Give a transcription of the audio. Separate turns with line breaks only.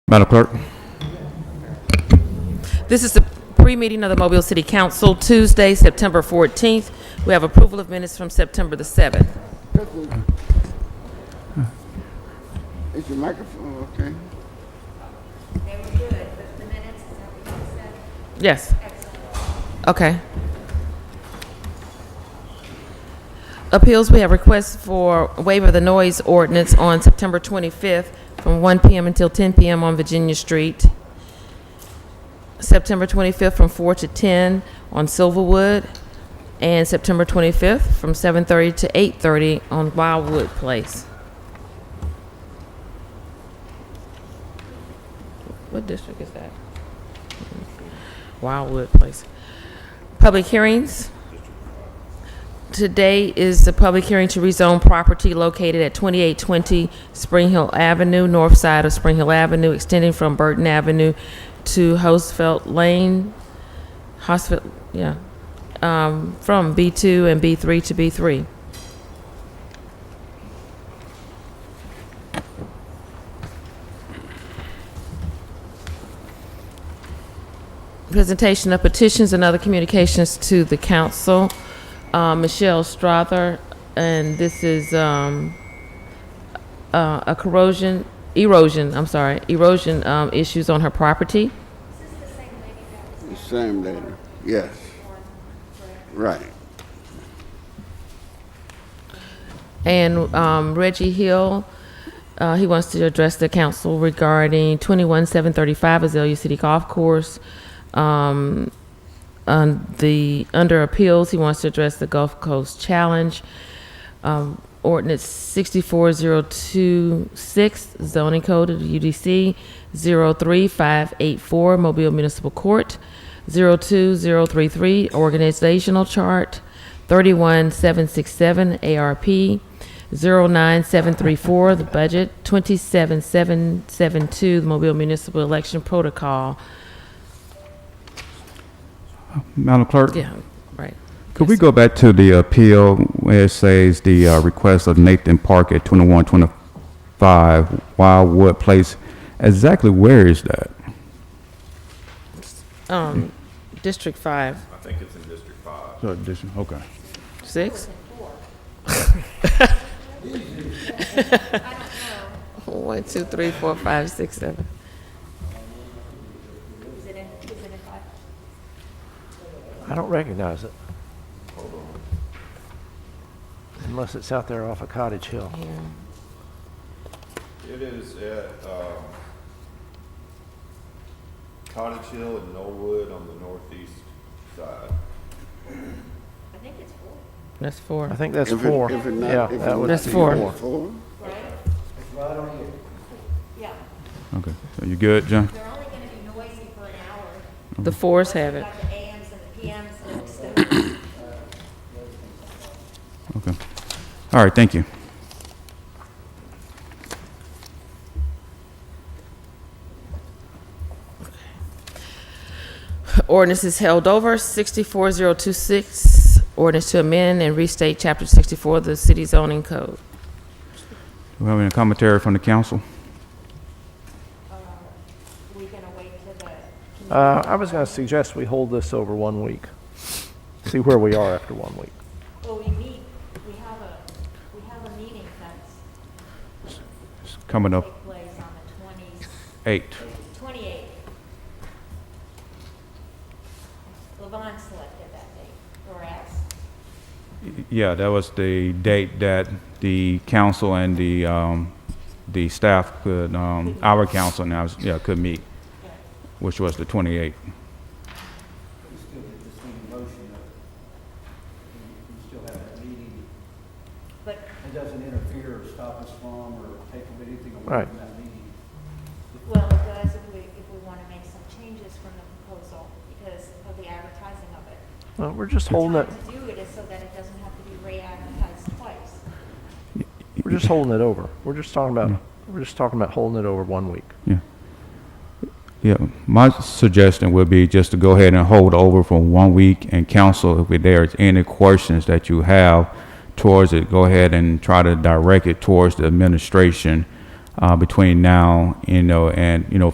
Madam Clerk?
This is the pre-meeting of the Mobile City Council, Tuesday, September 14th. We have approval of minutes from September the 7th.
Is your microphone okay?
They were good, but the minutes, is that what you said?
Yes. Okay. Appeals, we have requests for waiver of the noise ordinance on September 25th from 1 PM until 10 PM on Virginia Street. September 25th from 4 to 10 on Silverwood, and September 25th from 7:30 to 8:30 on Wildwood Place. What district is that? Wildwood Place. Public hearings. Today is the public hearing to rezone property located at 2820 Spring Hill Avenue, north side of Spring Hill Avenue, extending from Burton Avenue to Hosfeld Lane, Hosfeld, yeah, um, from B2 and B3 to B3. presentation of petitions and other communications to the council. Uh, Michelle Strother, and this is um, uh, a corrosion, erosion, I'm sorry, erosion um, issues on her property.
The same lady, yes. Right.
And um, Reggie Hill, uh, he wants to address the council regarding 21735 Azalea City Golf Course. Um, on the, under appeals, he wants to address the Gulf Coast Challenge. Um, ordinance 64026, zoning code of the UDC, 03584, Mobile Municipal Court, 02033, organizational chart, 31767 ARP, 09734, the budget, 27772, the Mobile Municipal Election Protocol.
Madam Clerk?
Yeah, right.
Could we go back to the appeal where it says the uh, request of Nathan Park at 2125 Wildwood Place? Exactly where is that?
Um, District 5,
Okay.
6? One, two, three, four, five, six, seven.
Is it in, is it in five?
I don't recognize it. Unless it's out there off of Cottage Hill.
It is at um, Cottage Hill and Knollwood on the northeast side.
I think it's four.
That's
I
four.
think that's
If it-
four.
if it not-
Yeah,
if it
that would
That's
be
four.
Four?
Yeah,
Okay. So you good, John?
they're only gonna be noisy for an hour.
The fours have it.
Got the AMs and the PMs and stuff.
Okay. All right, thank you.
Ordinance is held over. 64026, ordinance to amend and restate Chapter 64 of the City Zoning Code.
Do we have any commentary from the council?
We uh, gonna wait till the,
Uh, I was going to suggest we hold this over one week. See where we are after one week.
well, we meet, we have a, we have a meeting that's
It's coming up
take place on the
eight.
twenty, twenty-eighth. Levon selected that date, or asked.
Yeah, that was the date that the council and the, um, the staff could, um, our council now, yeah, could meet, which was the 28th.
we still have that meeting.
But-
It doesn't interfere or stop us from or take anything away
Right.
from that meeting.
Well, it does if we, if we want to make some changes from the proposal because of the advertising of it.
Uh, We're just holding it,
To do it is so that it doesn't have to be re-advertised twice.
we're just holding it over. We're just talking about, we're just talking about holding it over one week.
Yeah, my suggestion would be just to go ahead and hold over for one week, and council, if there's any questions that you have towards it, go ahead and try to direct it towards the administration, uh, between now, you know, and, you know,